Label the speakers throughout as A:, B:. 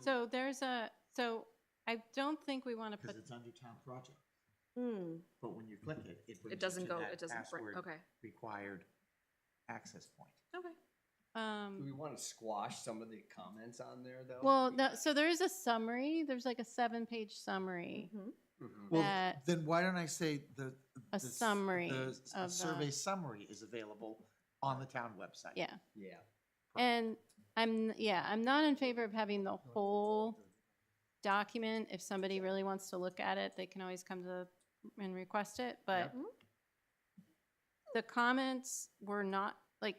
A: So there's a, so I don't think we want to
B: because
A: put,
B: it's under town project.
C: Hmm,
B: But when you click it, it brings
D: It
B: you
D: doesn't
B: to
D: go,
B: that
D: it doesn't, br-
B: password
D: okay,
B: Required access point.
D: okay.
E: Do we
A: um,
E: want to squash some of the comments on there, though?
A: well, no, so there is a summary, there's like a seven-page summary.
D: Mm-hmm.
C: mhm.
E: Mhm.
B: Well,
A: That-
B: then why don't I say the? the s-
A: summary
B: the s-
A: of
B: A
A: the-
B: survey summary is available on the town website.
A: Yeah,
E: Yeah.
A: and I'm, yeah, I'm not in favor of having the whole document. If somebody really wants to look at it, they can always come to and request it, but the comments were not, like,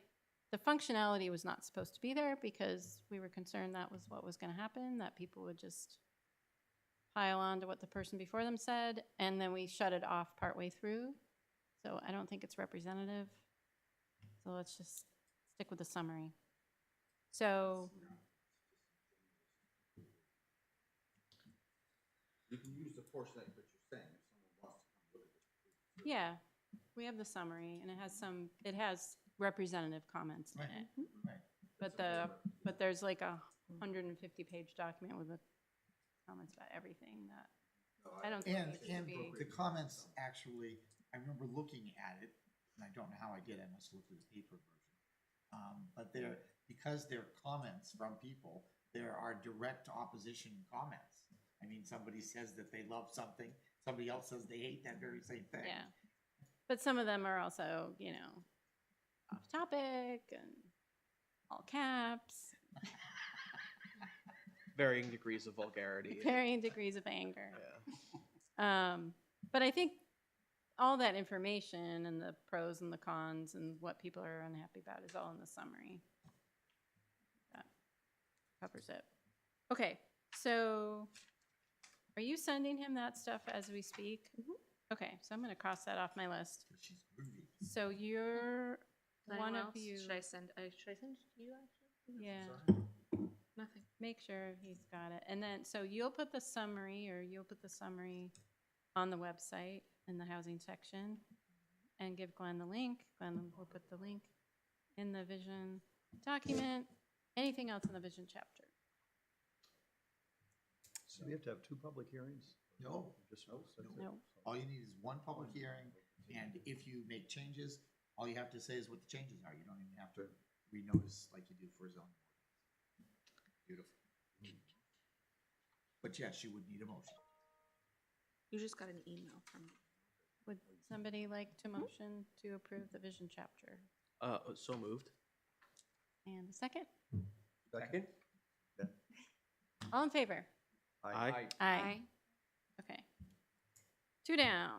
A: the functionality was not supposed to be there because we were concerned that was what was gonna happen, that people would just pile on to what the person before them said, and then we shut it off partway through. So I don't think it's representative. So let's just stick with the summary. So,
F: You can use the portion that you're saying, if someone wants to come look at it.
A: yeah, we have the summary, and it has some, it has representative comments in
B: Right,
A: it.
B: right.
A: But the, but there's like a hundred and fifty page document with the comments about everything that, I don't think
B: And,
A: it should
B: and
A: be.
B: the comments actually, I remember looking at it, and I don't know how I did, I must have looked at the paper version. Um, but they're, because they're comments from people, there are direct opposition comments. I mean, somebody says that they love something, somebody else says they hate that very same thing.
A: Yeah. But some of them are also, you know, off topic and all caps,
G: varying degrees of vulgarity.
A: varying degrees of anger.
G: Yeah.
A: Um, but I think all that information and the pros and the cons and what people are unhappy about is all in the summary. That covers it. Okay, so are you sending him that stuff as we speak?
C: Mhm.
A: Okay, so I'm gonna cross that off my list.
B: But she's moving.
A: So you're
D: Does
A: one
D: anyone
A: of
D: else-
A: you.
D: Should I send, I, should I send it to you actually?
A: Yeah,
D: Nothing.
A: make sure he's got it. And then, so you'll put the summary, or you'll put the summary on the website in the housing section and give Glenn the link. Glenn will put the link in the vision document. Anything else in the vision chapter?
H: Do we have to have two public hearings?
B: No,
H: Just
A: No.
B: all you need is one public hearing, and if you make changes, all you have to say is what the changes are. You don't even have to renotice like you do for zoning. Beautiful. But yes, you would need a motion.
D: You just got an email from.
A: Would somebody like to motion to approve the vision chapter?
G: Uh, so moved.
A: And a second?
H: Second?
A: All in favor?
G: Aye.
A: Aye. Okay. Two down.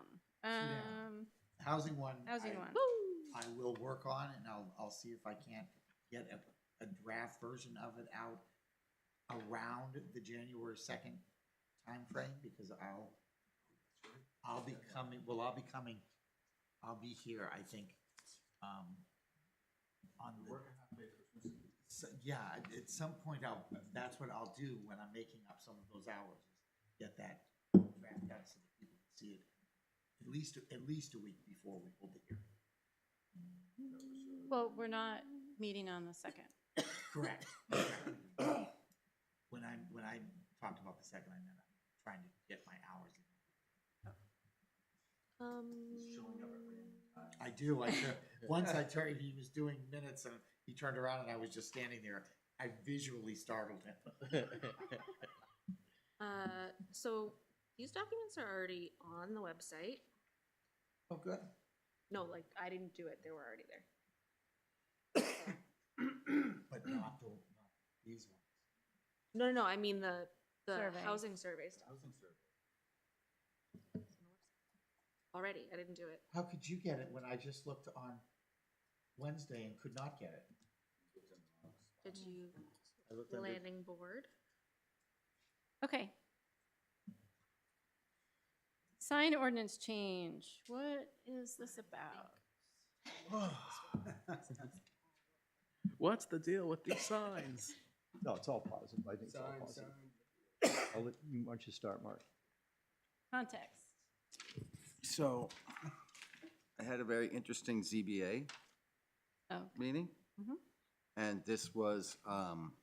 B: down.
A: Um,
B: Housing one.
A: housing
B: I-
A: one.
B: I will work on and I'll, I'll see if I can't get a, a draft version of it out around the January second timeframe, because I'll, I'll be coming, well, I'll be coming, I'll be here, I think, um, on the, so, yeah, at- at some point I'll, that's what I'll do when I'm making up some of those hours, is get that draft out so that people can see it at least, at least a week before we hold the hearing.
A: Well, we're not meeting on the second.
B: Correct. When I, when I talked about the second, I meant I'm trying to get my hours in.
D: Um,
B: I do, I, tur- once I turned, he was doing minutes and he turned around and I was just standing there. I visually startled him.
D: Uh, so these documents are already on the website.
B: Oh, good.
D: No, like, I didn't do it, they were already there.
B: But not the, not these ones.
D: No, no, no, I mean the, the
A: Survey.
D: housing survey stuff. Already, I didn't do it.
B: How could you get it when I just looked on Wednesday and could not get it?
D: Did you,
B: I looked under,
D: landing board?
A: Okay. Sign ordinance change. What is this about?
G: What's the deal with these signs?
H: No, it's all positive. I think it's all
E: Sign,
H: positive.
E: sign.
H: I'll let, you- why don't you start, Mark?
A: Context.
F: So, I had a very interesting ZBA
A: Oh,
F: meeting.
A: Mhm.
F: And this was, um,